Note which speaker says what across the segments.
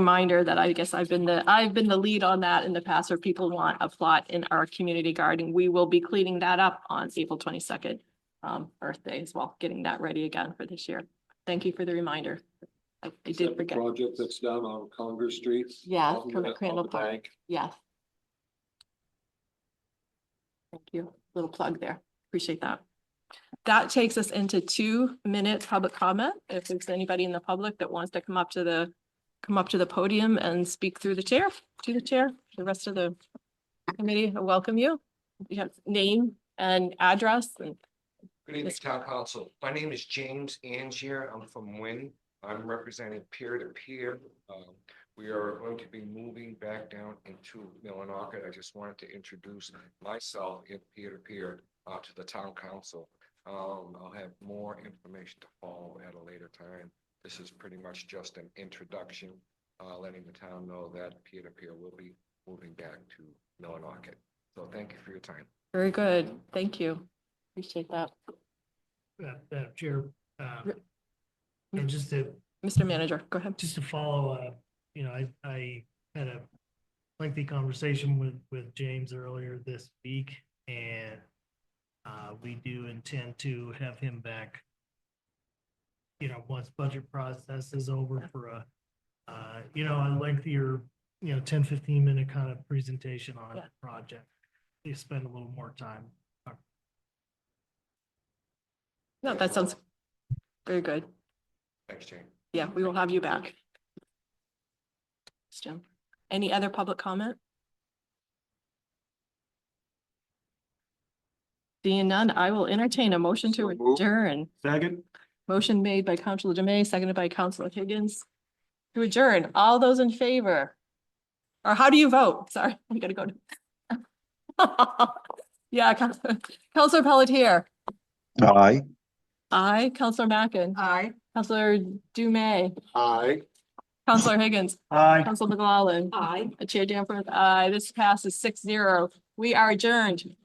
Speaker 1: reminder that I guess I've been the, I've been the lead on that in the past, where people want a plot in our community garden. We will be cleaning that up on April twenty-second, um, Earth Day as well, getting that ready again for this year. Thank you for the reminder. I I
Speaker 2: Is that
Speaker 1: did
Speaker 2: the
Speaker 1: forget.
Speaker 2: Project that's down on Congress Street.
Speaker 1: Yeah,
Speaker 2: out in
Speaker 1: from
Speaker 2: the-
Speaker 1: the Crandall
Speaker 2: on the
Speaker 1: Park.
Speaker 2: bank.
Speaker 1: Yes. Thank you. Little plug there. Appreciate that. That takes us into two minutes public comment. If there's anybody in the public that wants to come up to the, come up to the podium and speak through the chair, to the chair, the rest of the committee, I welcome you. You have name and address and
Speaker 3: Good evening,
Speaker 1: Yes.
Speaker 3: Town Council. My name is James Angier. I'm from Wynn. I'm representing peer to peer. Um, We are going to be moving back down into Millinocket. I just wanted to introduce myself in peer to peer uh to the Town Council. Um, I'll have more information to follow at a later time. This is pretty much just an introduction, uh, letting the town know that peer to peer will be moving back to Millinocket. So thank you for your time.
Speaker 1: very good. Thank you. Appreciate that.
Speaker 4: uh, uh, Chair, uh,
Speaker 1: Re-
Speaker 4: and just to,
Speaker 1: Mr. Manager, go ahead.
Speaker 4: just to follow up, you know, I, I had a lengthy conversation with, with James earlier this week, and uh, we do intend to have him back, you know, once budget process is over for a, uh, you know, a lengthier, you know, 10, 15 minute kind of presentation on
Speaker 1: Yeah.
Speaker 4: a project. You spend a little more time.
Speaker 1: No, that sounds very good.
Speaker 3: Thanks, Jane.
Speaker 1: Yeah, we will have you back. Thanks, Jim. Any other public comment? Seeing none, I will entertain a motion to
Speaker 2: So moved.
Speaker 1: adjourn.
Speaker 4: Second.
Speaker 1: Motion made by Councilor Dumeay, seconded by Councilor Higgins. To adjourn, all those in favor? Or how do you vote? Sorry, we gotta go to. Yeah, Councilor Councilor Pelletier,
Speaker 5: Aye.
Speaker 1: aye, Councilor Mackin,
Speaker 6: Aye.
Speaker 1: Councilor Dumeay,
Speaker 2: Aye.
Speaker 1: Councilor Higgins,
Speaker 4: Aye.
Speaker 1: Council McLaughlin.
Speaker 6: Aye.
Speaker 1: Chair Danforth, aye. This passes six zero. We are adjourned.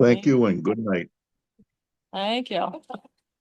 Speaker 5: Thank you and good night.
Speaker 1: Thank you.